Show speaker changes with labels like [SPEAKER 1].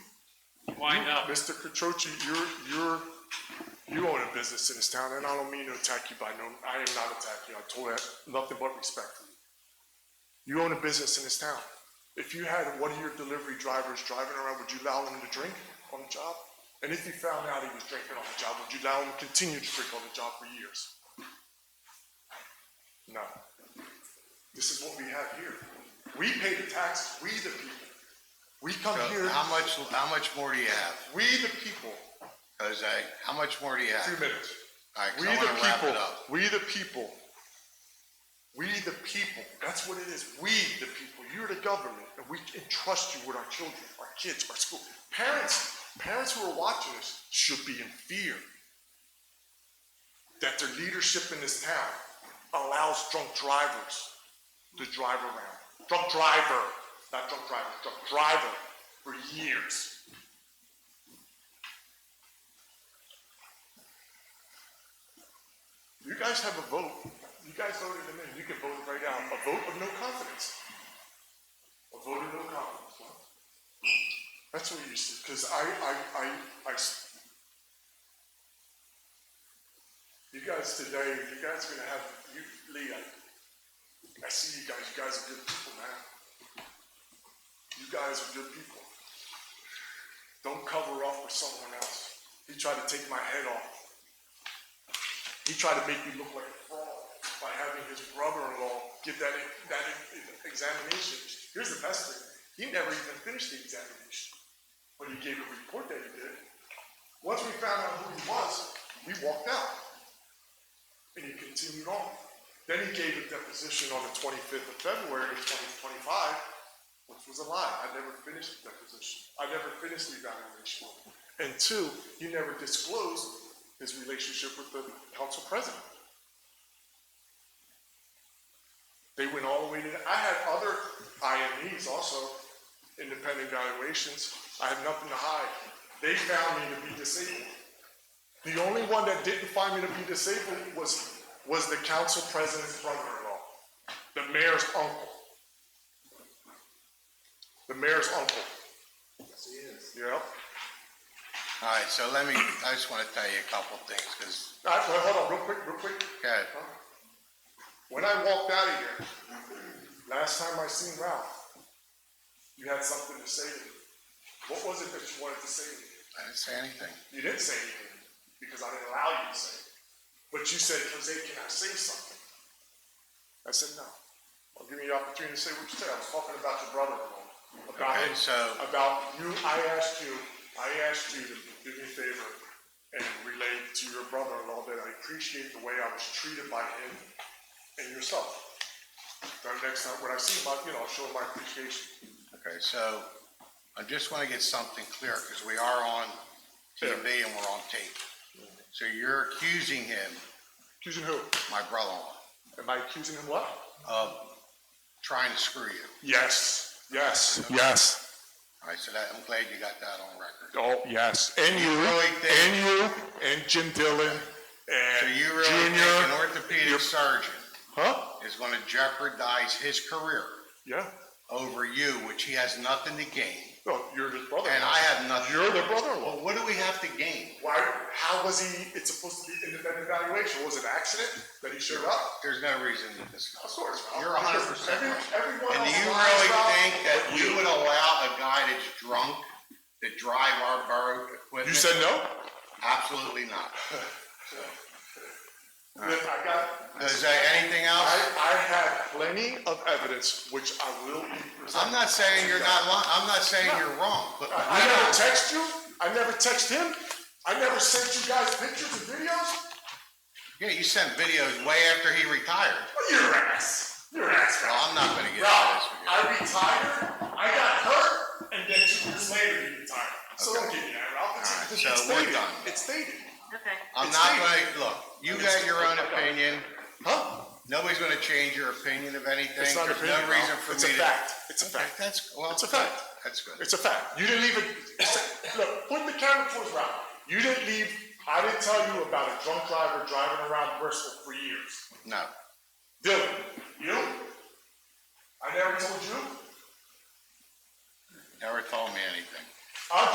[SPEAKER 1] wind up.
[SPEAKER 2] Mr. Catroci, you're, you're, you own a business in this town, and I don't mean to attack you by no, I am not attacking you, I told that nothing but respectfully. You own a business in this town. If you had one of your delivery drivers driving around, would you allow him to drink on the job? And if you found out he was drinking on the job, would you allow him to continue to drink on the job for years? No. This is what we have here. We pay the taxes, we the people. We come here,
[SPEAKER 3] So How much, how much more do you have?
[SPEAKER 2] we the people.
[SPEAKER 3] Jose, how much more do you
[SPEAKER 2] Two
[SPEAKER 3] have?
[SPEAKER 2] minutes.
[SPEAKER 3] All right, 'cause
[SPEAKER 2] We
[SPEAKER 3] I
[SPEAKER 2] the
[SPEAKER 3] want to wrap
[SPEAKER 2] people,
[SPEAKER 3] it up.
[SPEAKER 2] we the people. We the people, that's what it is. We the people, you're the government, and we entrust you with our children, our kids, our school. Parents, parents who are watching this should be in fear that their leadership in this town allows drunk drivers to drive around. Drunk driver, not drunk driver, drunk driver for years. You guys have a vote. You guys voted him in. You can vote right now. A vote of no confidence. A vote of no confidence. That's what you said. Because I, I, I, I s- You guys today, you guys are gonna have you, Lee. I, I see you guys. You guys are good people, man. You guys are good people. Don't cover up for someone else. He tried to take my head off. He tried to make me look like a fraud by having his brother-in-law give that, e, that examination. Here's the best thing, he never even finished the examination, but he gave a report that he did. Once we found out who he was, we walked out. And he continued on. Then he gave a deposition on the twenty-fifth of February of twenty twenty-five, which was a lie. I never finished the deposition. I never finished the evaluation. And two, he never disclosed his relationship with the council president. They went all the way to, I had other IMEs also, independent valuations. I have nothing to hide. They found me to be disabled. The only one that didn't find me to be disabled was, was the council president's brother-in-law, the mayor's uncle. The mayor's uncle. Yes, he is. Yep.
[SPEAKER 3] All right, so let me, I just want to tell you a couple things, because,
[SPEAKER 2] All right, well, hold on, real quick, real quick.
[SPEAKER 3] God,
[SPEAKER 2] When I walked out of here, last time I seen Ralph, you had something to say to me. What was it that you wanted to say to me?
[SPEAKER 3] I didn't say anything.
[SPEAKER 2] You didn't say anything because I didn't allow you to say it. But you said, Jose, can I say something? I said, no. I'll give you the opportunity to say what you said. I was talking about your brother-in-law. About
[SPEAKER 3] Okay,
[SPEAKER 2] him,
[SPEAKER 3] so-
[SPEAKER 2] about you, I asked you, I asked you to do me a favor and relate to your brother-in-law that I appreciate the way I was treated by him and yourself. Now, next time, when I see him, I- you know, I'll show him my appreciation.
[SPEAKER 3] Okay, so I just want to get something clear, because we are on TV and we're on tape. So you're accusing him,
[SPEAKER 2] Accusing who?
[SPEAKER 3] my brother-in-law,
[SPEAKER 2] Am I accusing him what?
[SPEAKER 3] of trying to screw you.
[SPEAKER 2] Yes, yes, yes.
[SPEAKER 3] All right, so that, I'm glad you got that on record.
[SPEAKER 2] Oh, yes, and you,
[SPEAKER 3] really think-
[SPEAKER 2] and you, and Jim Dillon,
[SPEAKER 3] So
[SPEAKER 2] and
[SPEAKER 3] you really think an
[SPEAKER 2] Junior.
[SPEAKER 3] orthopedic surgeon
[SPEAKER 2] Huh?
[SPEAKER 3] is going to jeopardize his career
[SPEAKER 2] Yeah,
[SPEAKER 3] over you, which he has nothing to gain,
[SPEAKER 2] no, you're his brother.
[SPEAKER 3] and I have nothing.
[SPEAKER 2] Oh, You're the brother-in-law.
[SPEAKER 3] Well, what do we have to gain?
[SPEAKER 2] Why, how was he, it's supposed to be independent evaluation, was it an accident that he showed up?
[SPEAKER 3] There's no reason to discuss.
[SPEAKER 2] Of course. Ralph,
[SPEAKER 3] You're a hundred
[SPEAKER 2] because
[SPEAKER 3] percent
[SPEAKER 2] every-
[SPEAKER 3] right.
[SPEAKER 2] Everyone
[SPEAKER 3] And
[SPEAKER 2] else
[SPEAKER 3] do you
[SPEAKER 2] lies,
[SPEAKER 3] really
[SPEAKER 2] Ralph,
[SPEAKER 3] think that
[SPEAKER 2] but
[SPEAKER 3] we would allow a guy that's drunk to drive our borough
[SPEAKER 2] You
[SPEAKER 3] equipment?
[SPEAKER 2] said no?
[SPEAKER 3] Absolutely not.
[SPEAKER 2] Look, I got,
[SPEAKER 3] Is there anything else?
[SPEAKER 2] I, I have plenty of evidence, which I will be presenting.
[SPEAKER 3] I'm not saying you're not, li- I'm not saying you're wrong, but
[SPEAKER 2] I
[SPEAKER 3] we
[SPEAKER 2] never
[SPEAKER 3] don't-
[SPEAKER 2] text you, I never text him, I never sent you guys pictures and videos.
[SPEAKER 3] yeah, you sent videos way after he retired.
[SPEAKER 2] Your ass. Your ass,
[SPEAKER 3] Well,
[SPEAKER 2] Ralph.
[SPEAKER 3] I'm not gonna get into this
[SPEAKER 2] Ralph,
[SPEAKER 3] with you.
[SPEAKER 2] I retired, I got hurt, and then two years later he retired. So don't give me that, Ralph.
[SPEAKER 3] All right,
[SPEAKER 2] It's,
[SPEAKER 3] so
[SPEAKER 2] it's
[SPEAKER 3] we're
[SPEAKER 2] stated.
[SPEAKER 3] done.
[SPEAKER 2] It's stated.
[SPEAKER 4] Okay.
[SPEAKER 3] I'm
[SPEAKER 2] It's
[SPEAKER 3] not
[SPEAKER 2] stated.
[SPEAKER 3] gonna, look, you got your own opinion.
[SPEAKER 2] Huh?
[SPEAKER 3] Nobody's gonna change your opinion of anything. There's
[SPEAKER 2] It's not
[SPEAKER 3] no
[SPEAKER 2] an opinion,
[SPEAKER 3] reason
[SPEAKER 2] Ralph.
[SPEAKER 3] for me
[SPEAKER 2] It's
[SPEAKER 3] to.
[SPEAKER 2] a fact. It's a
[SPEAKER 3] Okay,
[SPEAKER 2] fact.
[SPEAKER 3] That's, well.
[SPEAKER 2] It's a fact.
[SPEAKER 3] That's good.
[SPEAKER 2] It's a fact. You didn't even look. Put the camera towards Ralph. You didn't leave. I didn't tell you about a drunk driver driving around Bristol for years.
[SPEAKER 3] No.
[SPEAKER 2] Dylan, you? I never told you.
[SPEAKER 3] Never told me anything.